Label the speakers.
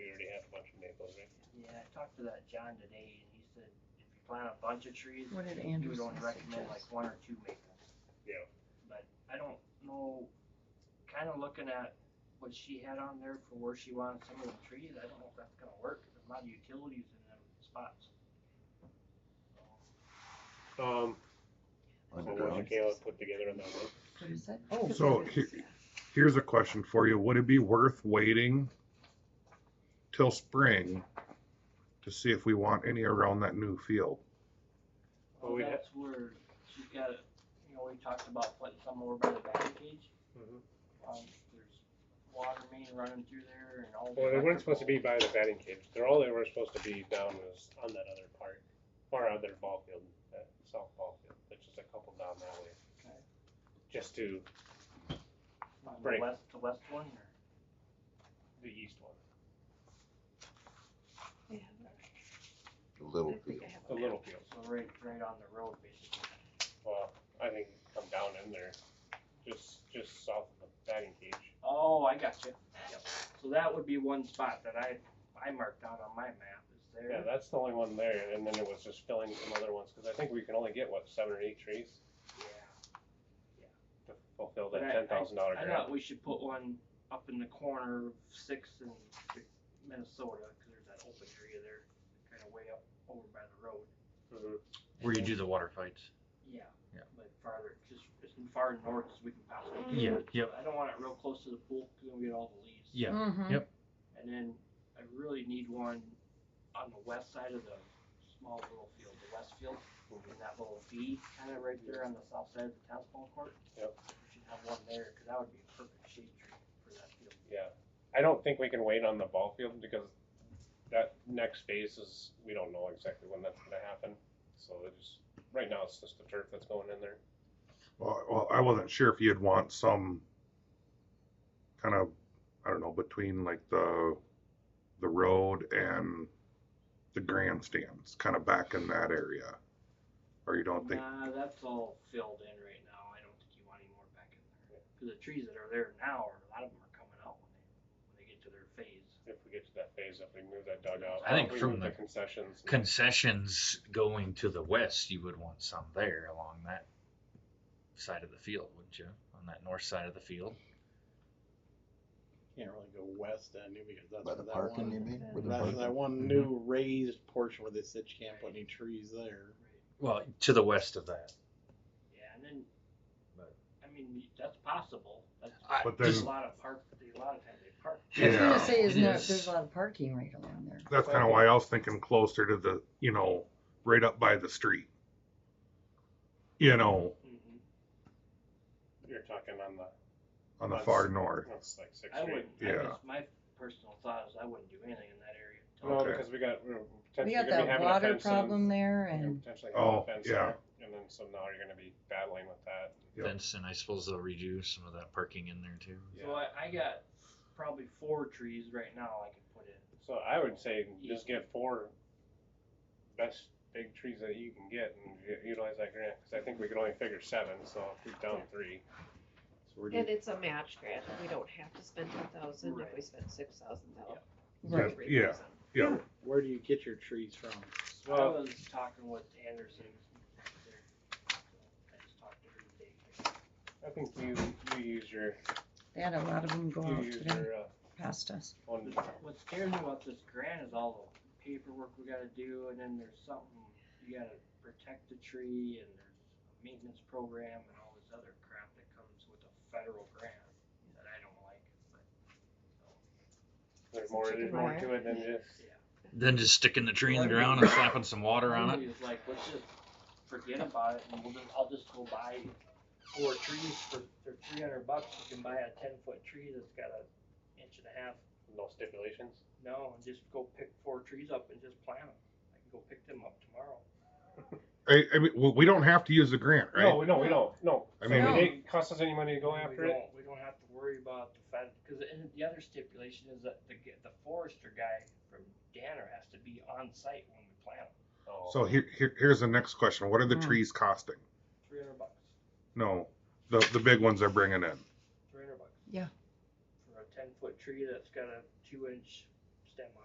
Speaker 1: to that John today, and he said, if you plant a bunch of trees,
Speaker 2: What did
Speaker 1: he would
Speaker 2: Anderson
Speaker 1: only recommend like
Speaker 2: suggest?
Speaker 1: one or two maples.
Speaker 3: Yeah.
Speaker 1: But I don't know, kinda looking at what she had on there for where she wanted some of the trees, I don't know if that's gonna work, 'cause there's a lot of utilities in them spots.
Speaker 3: Um, so what
Speaker 4: Underground.
Speaker 3: you can put together on that one.
Speaker 2: What is that?
Speaker 4: Oh.
Speaker 5: So he- here's a question for you. Would it be worth waiting till spring to see if we want any around that new field?
Speaker 3: Well,
Speaker 1: Well,
Speaker 3: we'd ha-
Speaker 1: that's where she's got, it- you know, we talked about putting some over by the batting cage.
Speaker 3: Mhm.
Speaker 1: Um, there's water main running through there and all. the
Speaker 3: Well, they weren't supposed to be
Speaker 1: electrical.
Speaker 3: by the batting cage. They're all they were supposed to be down was on that other part, or other ball field, that south ball field. That's just a couple down that way.
Speaker 1: Okay.
Speaker 3: Just to
Speaker 1: On the
Speaker 3: break.
Speaker 1: west, the west one or?
Speaker 3: the east one,
Speaker 4: Little field.
Speaker 3: the little field.
Speaker 1: So right, right on the road basically.
Speaker 3: Well, I think come down in there, just just south of the batting cage.
Speaker 1: Oh, I got you. So that would be one spot that I, I marked out on my map is
Speaker 3: Yeah,
Speaker 1: there.
Speaker 3: that's the only one there, and then it was just filling some other ones because I think we can only get what seven or eight trees
Speaker 1: Yeah.
Speaker 3: to fulfill
Speaker 1: But I-
Speaker 3: that ten thousand dollar
Speaker 1: I
Speaker 3: grant.
Speaker 1: thought we should put one up in the corner of Sixth and Minnesota, cause there's that open area there, kinda way up over by the road.
Speaker 3: Mhm.
Speaker 6: Where you do the water fights.
Speaker 1: Yeah.
Speaker 6: Yeah.
Speaker 1: But farther, just as far north as we can possibly. get.
Speaker 6: Yeah,
Speaker 2: Mm-hmm.
Speaker 6: yep,
Speaker 1: I don't want it real close to the pool, cause then we get all the leaves.
Speaker 6: yeah.
Speaker 3: Mm-hmm.
Speaker 2: Mhm.
Speaker 6: Yep.
Speaker 1: And then I really need one on the west side of the small little field, the west field, in that little V, kind of right there on the south side of the tennis ball court.
Speaker 3: Yep.
Speaker 1: We should have one there, cause that would be a perfect shade tree for that field.
Speaker 3: Yeah, I don't think we can wait on the ball field because that next phase is, we don't know exactly when that's gonna happen. So it just, right now it's just the turf that's going in there.
Speaker 5: Well, well, I wasn't sure if you'd want some kind of, I don't know, between like the the road and the grandstands, kind of back in that area, or you don't think?
Speaker 1: Nah, that's all filled in right now, I don't think you want any more back in there, cause the trees that are there now, are- a lot of them are coming out when they, when they get to their phase.
Speaker 3: If we get to that phase, if we move that dugout.
Speaker 6: I think
Speaker 3: if we
Speaker 6: from
Speaker 3: move
Speaker 6: the
Speaker 3: Concessions.
Speaker 6: Concessions going to the west, you would want some there along that side of the field, wouldn't you? On that north side of the field.
Speaker 7: Can't really go west end because that's
Speaker 4: By
Speaker 7: where
Speaker 4: the
Speaker 7: that
Speaker 4: parking,
Speaker 7: one.
Speaker 4: you mean? Where the
Speaker 7: That's
Speaker 4: parking-
Speaker 7: that one new raised portion where they said you can't put any trees there.
Speaker 6: Well, to the west of that.
Speaker 1: Yeah, and then,
Speaker 6: But-
Speaker 1: I mean, that's possible, that's.
Speaker 6: I-
Speaker 5: But
Speaker 1: There's
Speaker 5: then-
Speaker 1: a lot of park, a lot of times they park.
Speaker 2: I was gonna
Speaker 5: Yeah.
Speaker 2: say, isn't
Speaker 6: It
Speaker 2: there,
Speaker 6: is.
Speaker 2: there's a lot of parking right along there.
Speaker 5: That's kind of why I was thinking closer to the, you know, right up by the street. You know,
Speaker 1: Mm-hmm.
Speaker 3: You're talking on the,
Speaker 5: on the far north.
Speaker 3: it's like six
Speaker 1: I
Speaker 3: feet.
Speaker 1: wouldn't, I
Speaker 5: Yeah.
Speaker 1: guess my personal thought is I wouldn't do anything in that area. until-
Speaker 3: No,
Speaker 5: Okay.
Speaker 3: because we got, we're
Speaker 2: We
Speaker 3: potentially
Speaker 2: got
Speaker 3: gonna be
Speaker 2: that
Speaker 3: having a
Speaker 2: water
Speaker 3: fence in.
Speaker 2: problem there
Speaker 3: We're gonna
Speaker 2: and,
Speaker 3: Potentially having a
Speaker 5: Oh,
Speaker 3: fence
Speaker 5: yeah.
Speaker 3: there, and then so now you're gonna be battling with that.
Speaker 5: Yep.
Speaker 6: Fence, and I suppose they'll redo some of that parking in there too.
Speaker 1: So I, I got probably four trees right now I could put in.
Speaker 3: So I would say just get four best big trees that you can get and u- utilize that grant, cause I think we could only figure seven, so if we're down three.
Speaker 7: So we're
Speaker 8: And
Speaker 7: just,
Speaker 8: it's a match grant, we don't have to spend ten thousand, if we
Speaker 1: Right.
Speaker 8: spend six thousand, that'll.
Speaker 2: right,
Speaker 8: be
Speaker 5: Yeah,
Speaker 8: 3,000.
Speaker 5: yeah.
Speaker 7: where do you get your trees from?
Speaker 1: So I was talking with Anderson. there. I just talked to her today.
Speaker 3: I think you, you use your,
Speaker 2: they had a lot of them go
Speaker 3: you
Speaker 2: out
Speaker 3: use
Speaker 2: today
Speaker 3: your, uh,
Speaker 2: past us.
Speaker 3: one,
Speaker 1: What scares me about this grant is all the paperwork we gotta do and then there's something, you gotta protect the tree and there's a maintenance program and all this other crap that comes with a federal grant that I don't like, but,
Speaker 3: there's more, there's
Speaker 8: Chicken
Speaker 3: more
Speaker 8: wire.
Speaker 3: to it than just,
Speaker 1: yeah.
Speaker 6: Then just sticking the tree in the ground and slapping some water on it.
Speaker 1: He was like, let's just forget about it and we'll just, I'll just go buy four trees for, for three hundred bucks. You can buy a ten foot tree that's got a inch and a half.
Speaker 3: no stipulations.
Speaker 1: No, and just go pick four trees up and just plant them. I can go pick them up tomorrow.
Speaker 5: I, I mean, well, we don't have to use the grant, right?
Speaker 3: No, we, no, we don't, no.
Speaker 5: I
Speaker 3: So
Speaker 5: mean-
Speaker 3: it didn't cost us any money to go
Speaker 1: We
Speaker 3: after it.
Speaker 1: don't- We don't have to worry about the fact, because the other stipulation is that the, g- the forester guy from Danner has to be on site when we plant them.
Speaker 3: Oh.
Speaker 5: So here, here, here's the next question. What are the
Speaker 2: Hmm.
Speaker 5: trees costing?
Speaker 1: Three hundred bucks,
Speaker 5: No, the the big ones they're bringing in.
Speaker 1: three hundred bucks.
Speaker 2: Yeah.
Speaker 1: For a ten foot tree that's got a two inch stem on it.